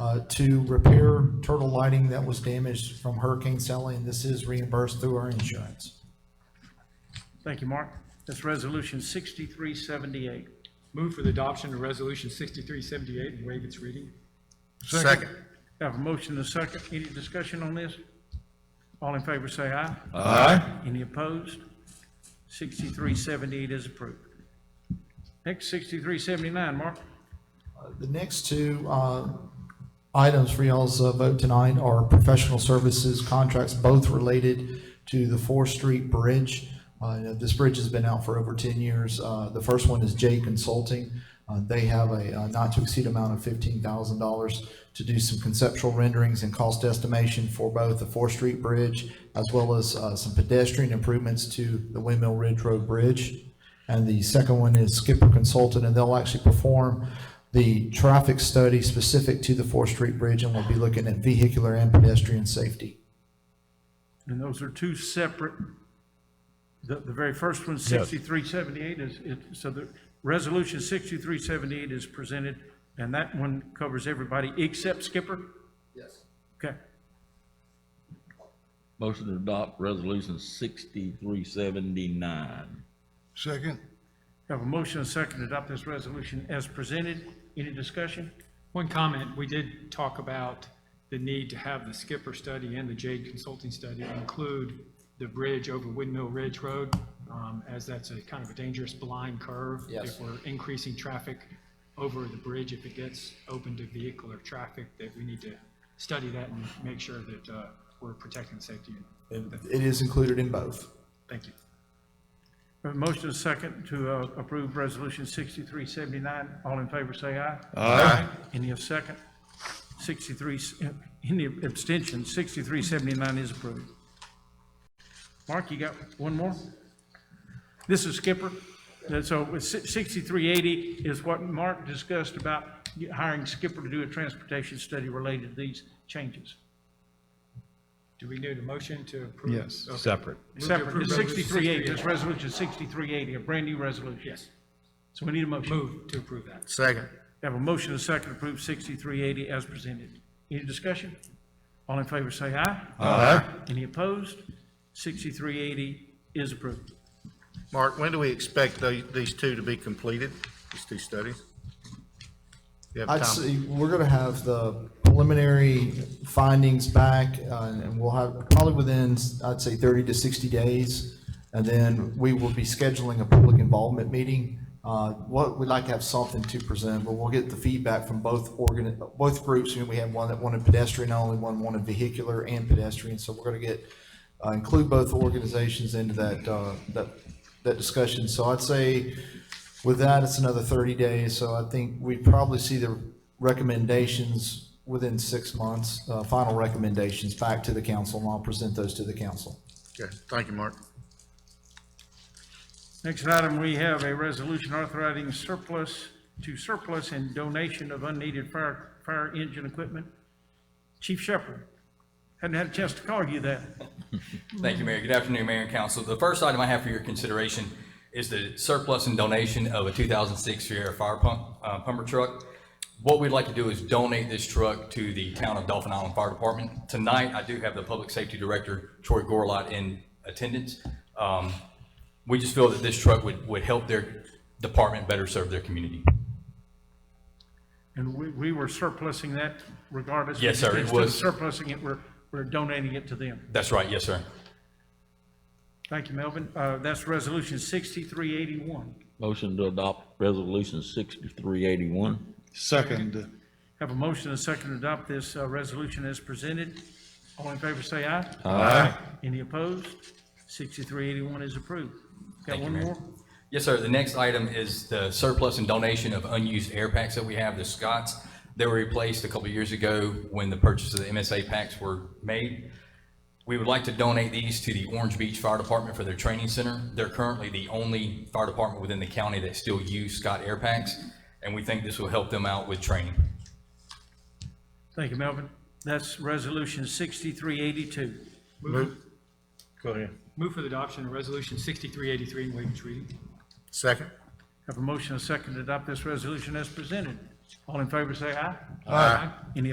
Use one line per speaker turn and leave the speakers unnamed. uh, to repair turtle lighting that was damaged from Hurricane Sally, and this is reimbursed through our insurance.
Thank you, Mark. That's Resolution 6378.
Move for the adoption of Resolution 6378 and waive its reading.
Second.
Have a motion and a second. Any discussion on this? All in favor, say aye.
Aye.
Any opposed? 6378 is approved. Next, 6379, Mark.
The next two uh, items for y'all's uh, vote tonight are professional services contracts, both related to the Fourth Street Bridge. Uh, you know, This bridge has been out for over 10 years. Uh, The first one is J Consulting. Uh, They have a uh, not-to-exceed amount of $15,000 to do some conceptual renderings and cost estimation for both the Fourth Street Bridge as well as uh, some pedestrian improvements to the Windmill Ridge Road Bridge. And the second one is Skipper Consultant, and they'll actually perform the traffic study specific to the Fourth Street Bridge, and we'll be looking at vehicular and pedestrian safety.
And those are two separate, the, the very first one, 6378 is, it- so the Resolution 6378 is presented, and that one covers everybody except Skipper? Yes. Okay.
Motion to adopt resolution sixty-three seventy-nine.
Second.
Have a motion and a second to adopt this resolution as presented. Any discussion?
One comment, we did talk about the need to have the Skipper study and the Jade Consulting study include the bridge over Windmill Ridge Road, um, as that's a kind of a dangerous blind curve. If we're increasing traffic over the bridge, if it gets open to vehicular traffic, that we need to study that and make sure that uh, we're protecting safety.
It is included in both.
Thank you.
Have a motion and a second to uh, approve Resolution 6379. All in favor, say aye.
Aye.
Any of second? 63, uh, any abstention? 6379 is approved. Mark, you got one more? This is Skipper. And So with si- 6380 is what Mark discussed about hiring Skipper to do a transportation study related to these changes.
Do we need a motion to approve? Yes.
Separate.
Separate,
approve
it's
Resolution
6380, this resolution is 6380, a brand-new resolution.
Yes,
So we need a motion.
move to approve that.
Second.
We Have a motion and a second to approve 6380 as presented. Any discussion? All in favor say aye.
Aye.
Any opposed? 6380 is approved.
Mark, when do we expect tho- these two to be completed, these two studies? You have
I'd
time?
say we're gonna have the preliminary findings back, uh, and we'll have probably within, I'd say, thirty to sixty days. And then we will be scheduling a public involvement meeting. Uh, what, we'd like to have something to present, but we'll get the feedback from both organ, both groups. And we had one that wanted pedestrian only, one wanted vehicular and pedestrian. So we're gonna get, uh, include both organizations into that, uh, that, that discussion. So I'd say with that, it's another 30 days, so I think we probably see the recommendations within six months, uh, final recommendations back to the council, and I'll present those to the council.
Okay, thank you, Mark.
Next item, we have a resolution authorizing surplus to surplus and donation of unneeded fire, fire engine equipment. Chief Shepherd, hadn't had a chance to call you that.
Thank you, Mayor. Good afternoon, Mayor and Council. The first item I have for your consideration is the surplus and donation of a 2006 Sierra fire pump, uh, pumper truck. What we'd like to do is donate this truck to the Town of Dolphin Island Fire Department. Tonight, I do have the Public Safety Director, Troy Gorlot, in attendance. Um, We just feel that this truck would, would help their department better serve their community.
And we, we were surplusing that regardless.
Yes, sir, it
Instead of
was-
Surplusing it, we're, we're donating it to them.
That's right, yes, sir.
Thank you, Melvin. Uh, That's Resolution 6381.
Motion to adopt resolution sixty-three eighty-one.
Second.
Have a motion and a second to adopt this uh, resolution as presented. All in favor, say aye.
Aye.
Any opposed? 6381 is approved. Got
Thank you,
one
Mayor.
more?
Yes, sir. The next item is the surplus and donation of unused air packs that we have, the Scotts. They were replaced a couple of years ago when the purchase of the MSA packs were made. We would like to donate these to the Orange Beach Fire Department for their training center. They're currently the only fire department within the county that still use Scott air packs, and we think this will help them out with training.
Thank you, Melvin. That's Resolution 6382.
Move. Go ahead.
Move for the adoption of Resolution 6383 and waive its reading.
Second.
Have a motion and a second to adopt this resolution as presented. All in favor, say aye.
Aye.
Any